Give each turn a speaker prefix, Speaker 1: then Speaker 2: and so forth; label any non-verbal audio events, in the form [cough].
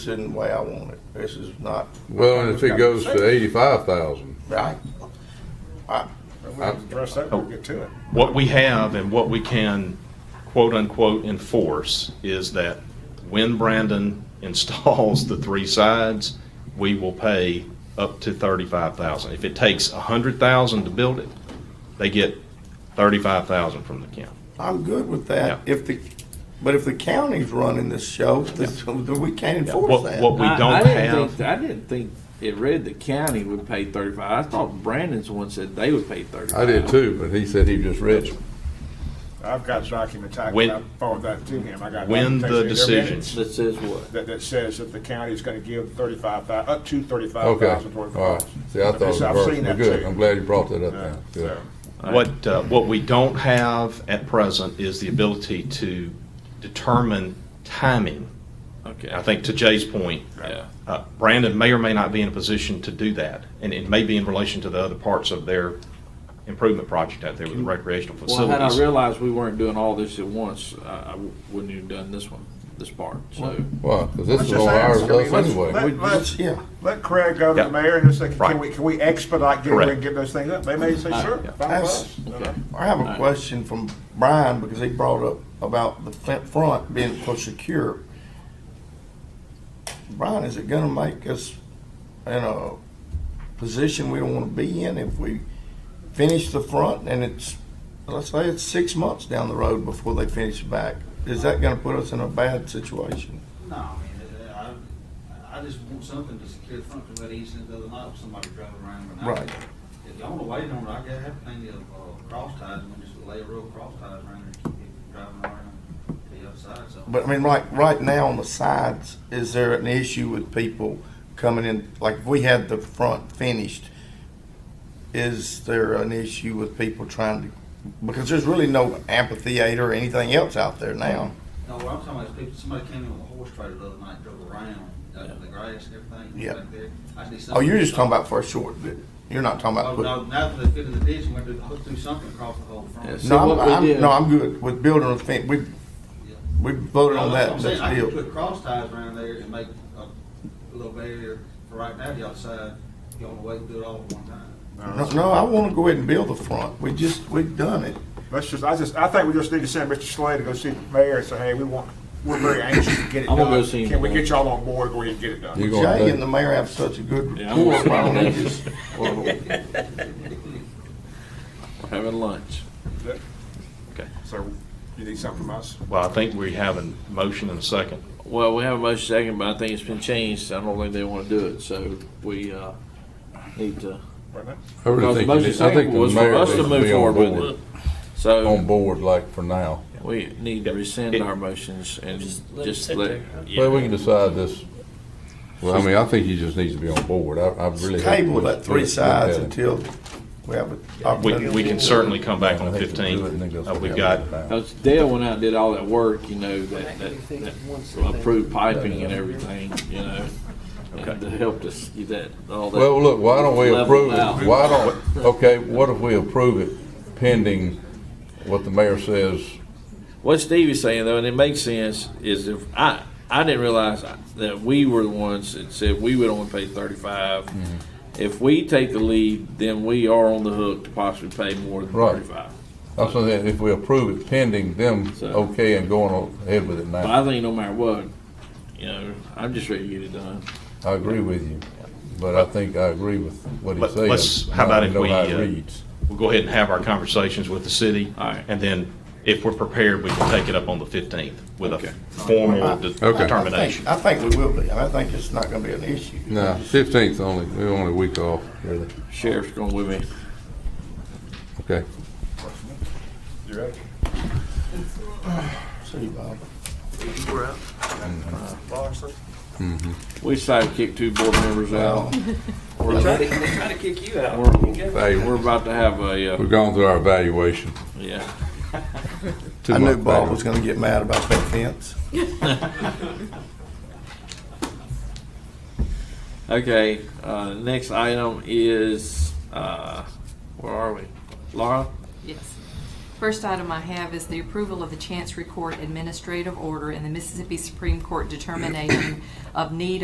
Speaker 1: This isn't the way I want it. This is not.
Speaker 2: Well, and if it goes to eighty-five thousand,
Speaker 1: Right.
Speaker 3: Well, We can brush that and get to it.
Speaker 4: What we have and what we can quote unquote enforce is that when Brandon [laughs] installs the three sides, we will pay up to thirty-five thousand. If it takes a hundred thousand to build it, they get thirty-five thousand from the county.
Speaker 1: I'm good with that.
Speaker 4: Yeah.
Speaker 1: If the, but if the county's running this show, this- we can't enforce
Speaker 4: What- what
Speaker 1: that.
Speaker 4: we-
Speaker 5: I-
Speaker 4: don't
Speaker 5: I didn't
Speaker 4: have-
Speaker 5: think- I didn't think it read the county would pay thirty-five. I thought Brandon's one said they would pay thirty-five.
Speaker 2: I did too, but he said he just read it.
Speaker 3: I've got documents, I
Speaker 4: When-
Speaker 3: I forward that to him, I got.
Speaker 4: When the
Speaker 3: documents in their
Speaker 4: decision-
Speaker 3: minutes
Speaker 5: That says what?
Speaker 3: That, that says that the county is gonna give thirty-five thou, up to thirty-five
Speaker 2: Okay,
Speaker 3: thousand
Speaker 2: all
Speaker 3: toward the
Speaker 2: right.
Speaker 3: cost.
Speaker 2: See, I
Speaker 3: I've
Speaker 2: thought it
Speaker 3: seen
Speaker 2: was, well,
Speaker 3: that
Speaker 2: good,
Speaker 3: too.
Speaker 2: I'm glad you brought that up
Speaker 3: Uh,
Speaker 2: now. Good.
Speaker 3: so,
Speaker 4: What, uh, what we don't have at present is the ability to determine timing.
Speaker 5: Okay.
Speaker 4: I think to Jay's point,
Speaker 5: Yeah.
Speaker 4: uh, Brandon may or may not be in a position to do that, and it may be in relation to the other parts of their improvement project out there with the recreational
Speaker 5: Well, had I
Speaker 4: facilities.
Speaker 5: realized we weren't doing all this at once, I, I wouldn't have done this one, this part, so.
Speaker 2: Well, because this
Speaker 3: Let's
Speaker 2: is
Speaker 3: just
Speaker 2: all ours,
Speaker 3: ask, I mean,
Speaker 2: us
Speaker 3: let's-
Speaker 2: anyway.
Speaker 3: let- let's-
Speaker 1: Yeah.
Speaker 3: Let Craig go to
Speaker 4: Yeah.
Speaker 3: the mayor and just say, can
Speaker 4: Right.
Speaker 3: we, can we expedite getting,
Speaker 4: Correct.
Speaker 3: and get those things up? They may say, sure, fine with
Speaker 1: That's-
Speaker 3: us. you know.
Speaker 5: Okay.
Speaker 1: I have a question from Brian because he brought up about the f- front being so secure. Brian, is it gonna make us in a position we don't wanna be in if we finish the front and it's, let's say it's six months down the road before they finish the back? Is that gonna put us in a bad situation?
Speaker 6: No, I mean, uh, I, I just want something to secure the front, because that incident the other night, with somebody driving around with an
Speaker 1: Right.
Speaker 6: accident. If y'all wanna wait on it, I got, have plenty of, uh, cross ties, and we just lay a row of cross ties around there, keep it driving around to the other side, so.
Speaker 1: But I mean, like right now on the sides, is there an issue with people coming in? Like if we had the front finished, is there an issue with people trying to? Because there's really no amphitheater or anything else out there now.
Speaker 6: No, what I'm talking about is people, somebody came in with a horse trailer the other night, drove around, out in the grass and everything.
Speaker 1: Yeah.
Speaker 6: back there. I just need
Speaker 1: Oh, you're
Speaker 6: something-
Speaker 1: just talking about for a short bit. You're not talking
Speaker 6: Oh,
Speaker 1: about.
Speaker 6: no,
Speaker 1: put-
Speaker 6: now that they fit in the ditch, we're gonna do, hook through something across the whole front.
Speaker 5: Yes.
Speaker 1: No,
Speaker 5: See,
Speaker 1: I'm,
Speaker 5: what we
Speaker 1: I'm,
Speaker 5: did-
Speaker 1: no, I'm good with building a fence. We
Speaker 6: Yeah.
Speaker 1: we voted on
Speaker 6: No,
Speaker 1: that.
Speaker 6: that's what I'm
Speaker 1: That's
Speaker 6: saying. I
Speaker 1: the
Speaker 6: can
Speaker 1: deal.
Speaker 6: put cross ties around there and make a little barrier for right now, y'all decide, you wanna wait and do it all at one time.
Speaker 1: No, no, I want to go ahead and build the front. We just we've done it.
Speaker 3: Let's just, I just, I think we just need to send Mr. Slade to go see the mayor and say, hey, we want, we're very anxious to get it
Speaker 5: I'm
Speaker 3: done.
Speaker 5: gonna go see him
Speaker 3: Can we
Speaker 5: tomorrow.
Speaker 3: get y'all on board, go ahead and get it done?
Speaker 2: You gonna
Speaker 1: Jay
Speaker 2: take-
Speaker 1: and the mayor have such a good
Speaker 5: Yeah, I'm-
Speaker 1: rapport. Why don't they just? well,
Speaker 5: We're having lunch.
Speaker 4: Okay.
Speaker 3: So you need something from us?
Speaker 4: Well, I think we have a motion and a second.
Speaker 5: Well, we have a motion second, but I think it's been changed. I don't think they wanna do it, so we, uh, need to.
Speaker 3: Right now?
Speaker 2: I really
Speaker 5: Because the
Speaker 2: think, you
Speaker 5: motion
Speaker 2: need- I think
Speaker 5: second
Speaker 2: the
Speaker 5: was for
Speaker 2: mayor
Speaker 5: us
Speaker 2: needs
Speaker 5: to
Speaker 2: to
Speaker 5: move
Speaker 2: be on
Speaker 5: forward with
Speaker 2: board,
Speaker 5: it. So.
Speaker 2: on board like for now.
Speaker 5: We need to rescind our motions and just let,
Speaker 2: Well, we can decide this, well, I mean, I think he just needs to be on board. I, I really. hope
Speaker 1: table
Speaker 2: we-
Speaker 1: that three
Speaker 2: we-
Speaker 1: sides
Speaker 2: we-
Speaker 1: until we have a
Speaker 4: We,
Speaker 1: opportunity.
Speaker 4: we can certainly come back
Speaker 2: I
Speaker 4: on
Speaker 2: think we'll do it and then go
Speaker 4: fifteen. Uh,
Speaker 2: forget
Speaker 4: We've
Speaker 2: about
Speaker 4: got,
Speaker 2: it now.
Speaker 5: because Dale went out and did all that work, you know, that, that, that approved piping and everything, you know. And it helped us get that, all that.
Speaker 2: Well, look, why don't we
Speaker 5: leveled
Speaker 2: approve
Speaker 5: out.
Speaker 2: it? Why don't, okay, what if we approve it pending what the mayor says?
Speaker 5: What Stevie's saying though, and it makes sense, is if I, I didn't realize that we were the ones that said we would only pay thirty-five.
Speaker 2: Mm-hmm.
Speaker 5: If we take the lead, then we are on the hook to possibly pay more than
Speaker 2: Right.
Speaker 5: thirty-five.
Speaker 2: I'm saying that if we approve it pending them, okay, and going on ahead with it
Speaker 5: But
Speaker 2: now.
Speaker 5: I think no matter what, you know, I'm just ready to get it done.
Speaker 2: I agree with you, but I think I agree with what he
Speaker 4: Let-
Speaker 2: says.
Speaker 4: let's- how about
Speaker 2: I
Speaker 4: if
Speaker 2: know
Speaker 4: we,
Speaker 2: how it
Speaker 4: uh,
Speaker 2: reads.
Speaker 4: we'll go ahead and have our conversations with the city.
Speaker 5: All right.
Speaker 4: And then if we're prepared, we can take it up on the fifteenth with
Speaker 5: Okay.
Speaker 4: a formal de-
Speaker 2: Okay.
Speaker 4: determination.
Speaker 1: I think I think we will be. I think it's not gonna be an issue.
Speaker 2: No, fifteenth only, we only a week off, really.
Speaker 5: Sheriff's going with me.
Speaker 2: Okay.
Speaker 3: You ready?
Speaker 1: See, Bob.
Speaker 3: Lawson?
Speaker 5: We decided to kick two board members out.
Speaker 6: We're trying to, we're trying to kick you out.
Speaker 5: We're,
Speaker 2: Hey, we're,
Speaker 5: we're about to have a, uh,
Speaker 2: we're going through our evaluation.
Speaker 5: yeah.
Speaker 1: I
Speaker 2: Two-month
Speaker 1: knew Bob
Speaker 2: evaluation.
Speaker 1: was gonna get mad about that fence.
Speaker 5: Okay, uh, next item is, uh, where are we? Laura?
Speaker 7: Yes. First item I have is the approval of the Chancery Court Administrative Order and the Mississippi Supreme Court determination of need